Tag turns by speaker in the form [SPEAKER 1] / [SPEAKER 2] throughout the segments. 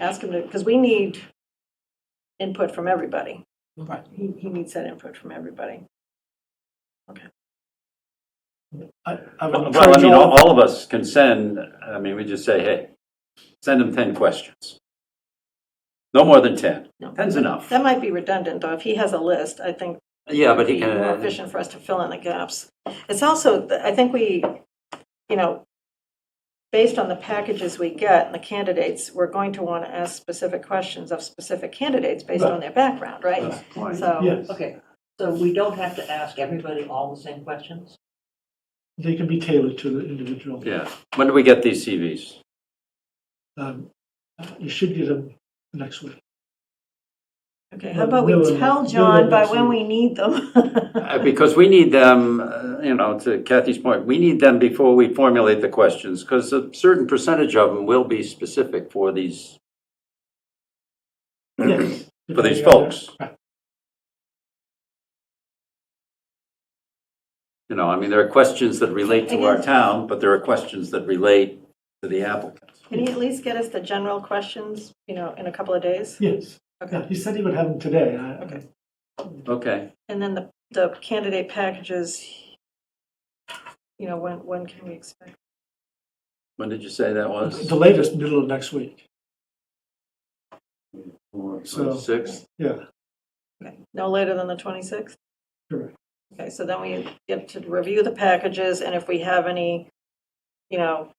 [SPEAKER 1] ask him to, because we need input from everybody.
[SPEAKER 2] Right.
[SPEAKER 1] He, he needs that input from everybody.
[SPEAKER 2] I, I would
[SPEAKER 3] Well, I
[SPEAKER 2] encourage
[SPEAKER 3] mean,
[SPEAKER 2] all,
[SPEAKER 3] all all of us can send, I mean, we just say, hey, send them 10 questions. No more than 10.
[SPEAKER 1] No.
[SPEAKER 3] 10's enough.
[SPEAKER 1] That might be redundant, though. If he has a list, I think
[SPEAKER 3] Yeah, but
[SPEAKER 1] it'd
[SPEAKER 3] he
[SPEAKER 1] be more
[SPEAKER 3] can, uh,
[SPEAKER 1] efficient for us to fill in the gaps. It's also, I think we, you know, based on the packages we get and the candidates, we're going to want to ask specific questions of specific candidates based on their background, right? So,
[SPEAKER 2] yes,
[SPEAKER 4] Okay, so we don't have to ask everybody all the same questions?
[SPEAKER 2] they can be tailored to the individual.
[SPEAKER 3] yeah. When do we get these CVs?
[SPEAKER 2] Um, uh, You should get them next week.
[SPEAKER 1] okay, how about we
[SPEAKER 2] We'll-
[SPEAKER 1] tell
[SPEAKER 2] we'll
[SPEAKER 1] John by when
[SPEAKER 2] see.
[SPEAKER 1] we need them?
[SPEAKER 3] Uh, Because we need them, uh, you know, to Kathy's point, we need them before we formulate the questions, because a certain percentage of them will be specific for these,
[SPEAKER 2] Yes.
[SPEAKER 3] Mm-hmm. for these folks. You know, I mean, there are questions that relate to our town, but there are questions that relate to the applicants.
[SPEAKER 1] Can you at least get us the general questions, you know, in a couple of days?
[SPEAKER 2] Yes, yeah,
[SPEAKER 1] Okay.
[SPEAKER 2] he said he would have them today. I- I-
[SPEAKER 1] Okay.
[SPEAKER 3] Okay.
[SPEAKER 1] And then the, the candidate packages, you know, when, when can we expect?
[SPEAKER 3] When did you say that was?
[SPEAKER 2] The latest, middle of next week, So-
[SPEAKER 3] Sixth?
[SPEAKER 2] yeah.
[SPEAKER 1] Okay, No later than the 26th?
[SPEAKER 2] Correct.
[SPEAKER 1] Okay, so then we get to review the packages, and if we have any, you know,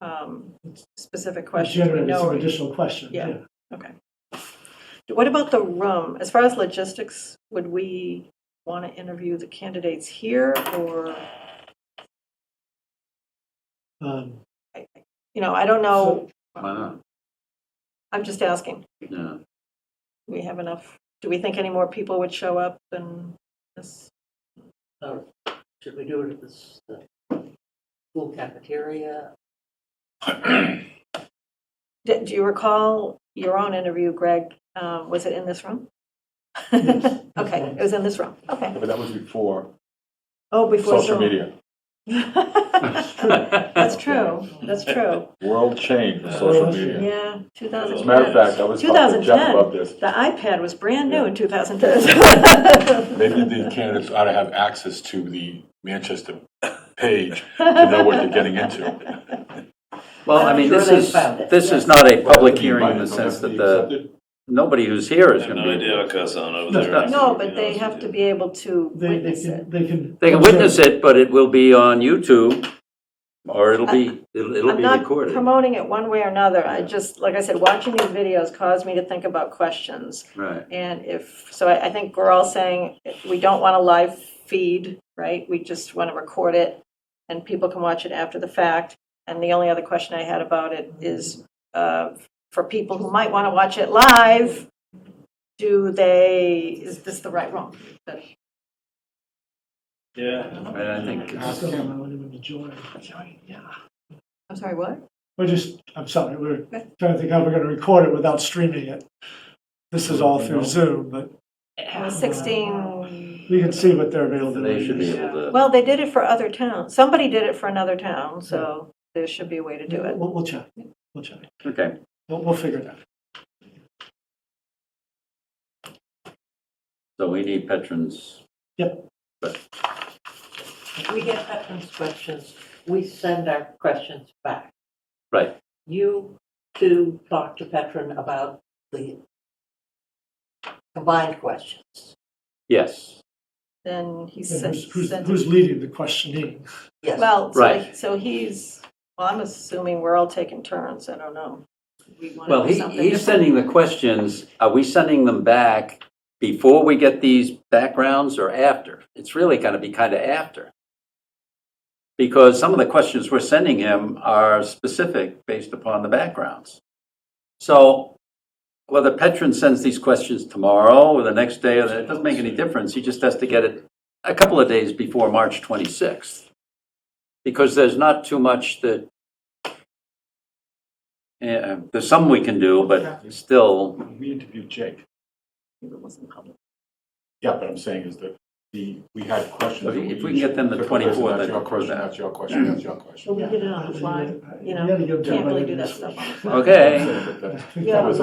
[SPEAKER 1] um, specific questions, we
[SPEAKER 2] Generate some
[SPEAKER 1] know.
[SPEAKER 2] additional questions,
[SPEAKER 1] Yeah.
[SPEAKER 2] yeah.
[SPEAKER 1] What about the room? As far as logistics, would we want to interview the candidates here, or,
[SPEAKER 2] Um,
[SPEAKER 1] you know, I don't know,
[SPEAKER 3] Why not?
[SPEAKER 1] I'm just asking.
[SPEAKER 3] Yeah.
[SPEAKER 1] Do we have enough, do we think any more people would show up than this?
[SPEAKER 4] Or should we do it at this, the school cafeteria?
[SPEAKER 1] Do do you recall your own interview, Greg? Uh, Was it in this room?
[SPEAKER 2] Yes.
[SPEAKER 1] Okay, it was in this room, okay.
[SPEAKER 5] But that was before
[SPEAKER 1] Oh, before
[SPEAKER 5] social
[SPEAKER 1] Zoom.
[SPEAKER 5] media.
[SPEAKER 1] That's true, that's true.
[SPEAKER 5] World change of
[SPEAKER 3] Yeah.
[SPEAKER 5] social media.
[SPEAKER 1] Yeah, 2010.
[SPEAKER 5] As a matter of fact, I was talking to Jeff
[SPEAKER 1] 2010.
[SPEAKER 5] about this.
[SPEAKER 1] The iPad was brand new in 2010.
[SPEAKER 6] Maybe the candidates ought to have access to the Manchester page to know what they're getting into.
[SPEAKER 3] Well, I mean,
[SPEAKER 4] Sure
[SPEAKER 3] this
[SPEAKER 4] they
[SPEAKER 3] is,
[SPEAKER 4] found it.
[SPEAKER 3] this is not a public
[SPEAKER 5] Have to be
[SPEAKER 3] hearing in the
[SPEAKER 5] invited,
[SPEAKER 3] sense
[SPEAKER 5] don't
[SPEAKER 3] that
[SPEAKER 5] have
[SPEAKER 3] the,
[SPEAKER 5] to be accepted.
[SPEAKER 3] nobody who's here is
[SPEAKER 7] I have
[SPEAKER 3] going
[SPEAKER 7] no
[SPEAKER 3] to be.
[SPEAKER 7] idea what goes on over there.
[SPEAKER 3] No,
[SPEAKER 1] No, but they have to be able to
[SPEAKER 2] They, they
[SPEAKER 1] witness it.
[SPEAKER 2] can, they can.
[SPEAKER 3] They can witness it, but it will be on YouTube, or it'll be, it'll it'll
[SPEAKER 1] I'm
[SPEAKER 3] be
[SPEAKER 1] not
[SPEAKER 3] recorded.
[SPEAKER 1] promoting it one way or another. I just, like I said, watching these videos caused me to think about questions.
[SPEAKER 3] Right.
[SPEAKER 1] And if, so I, I think we're all saying we don't want a live feed, right? We just want to record it and people can watch it after the fact. And the only other question I had about it is uh, for people who might want to watch it live, do they, is this the right room?
[SPEAKER 7] Yeah.
[SPEAKER 3] And I think,
[SPEAKER 2] Ask them, I want them to join. Yeah.
[SPEAKER 1] I'm sorry, what?
[SPEAKER 2] We're just, I'm sorry, we're trying to think how we're going to record it without streaming it. This is all through Zoom, but
[SPEAKER 1] It was 16,
[SPEAKER 2] we can see what their
[SPEAKER 3] they
[SPEAKER 2] availability
[SPEAKER 3] should be
[SPEAKER 2] is.
[SPEAKER 3] able to,
[SPEAKER 1] well, they did it for other towns. Somebody did it for another town, so there should be a way to do it.
[SPEAKER 2] We'll, we'll check, we'll check,
[SPEAKER 3] okay.
[SPEAKER 2] we'll, we'll figure it out.
[SPEAKER 3] So we need veterans.
[SPEAKER 4] We get veterans' questions, we send our questions back.
[SPEAKER 3] Right.
[SPEAKER 4] You two talk to veteran about the combined questions.
[SPEAKER 3] Yes.
[SPEAKER 1] Then he
[SPEAKER 2] And
[SPEAKER 1] sent.
[SPEAKER 2] Who's, who's-
[SPEAKER 1] sent it
[SPEAKER 2] who's leading the questioning?
[SPEAKER 4] Yes.
[SPEAKER 1] Well, so,
[SPEAKER 3] Right.
[SPEAKER 1] so he's, well, I'm assuming we're all taking turns, I don't know. We wanna
[SPEAKER 3] Well,
[SPEAKER 1] do
[SPEAKER 3] he,
[SPEAKER 1] something
[SPEAKER 3] he's
[SPEAKER 1] different.
[SPEAKER 3] sending the questions. Are we sending them back before we get these backgrounds or after? It's really going to be kind of after. Because some of the questions we're sending him are specific based upon the backgrounds. So whether Petron sends these questions tomorrow or the next day, or the- it doesn't make any difference. He just has to get it a couple of days before March 26th. Because there's not too much that yeah, there's some we can do, but still,
[SPEAKER 5] We interviewed Jake.
[SPEAKER 1] It wasn't public.
[SPEAKER 5] Yeah, but I'm saying is that the, we had questions.
[SPEAKER 3] If we-
[SPEAKER 5] and
[SPEAKER 3] if we can get them the
[SPEAKER 5] took a
[SPEAKER 3] 24,
[SPEAKER 5] question, That's
[SPEAKER 3] then
[SPEAKER 5] your
[SPEAKER 3] we'll do
[SPEAKER 5] question,
[SPEAKER 3] that.
[SPEAKER 5] that's your question, that's your question.
[SPEAKER 2] So we get it on the fly, you know,
[SPEAKER 4] gotta give
[SPEAKER 2] can't really
[SPEAKER 4] Joe
[SPEAKER 2] do that
[SPEAKER 4] Biden
[SPEAKER 2] stuff on the fly.
[SPEAKER 3] Okay.
[SPEAKER 5] That's it, but that's-
[SPEAKER 2] Yeah.
[SPEAKER 5] that was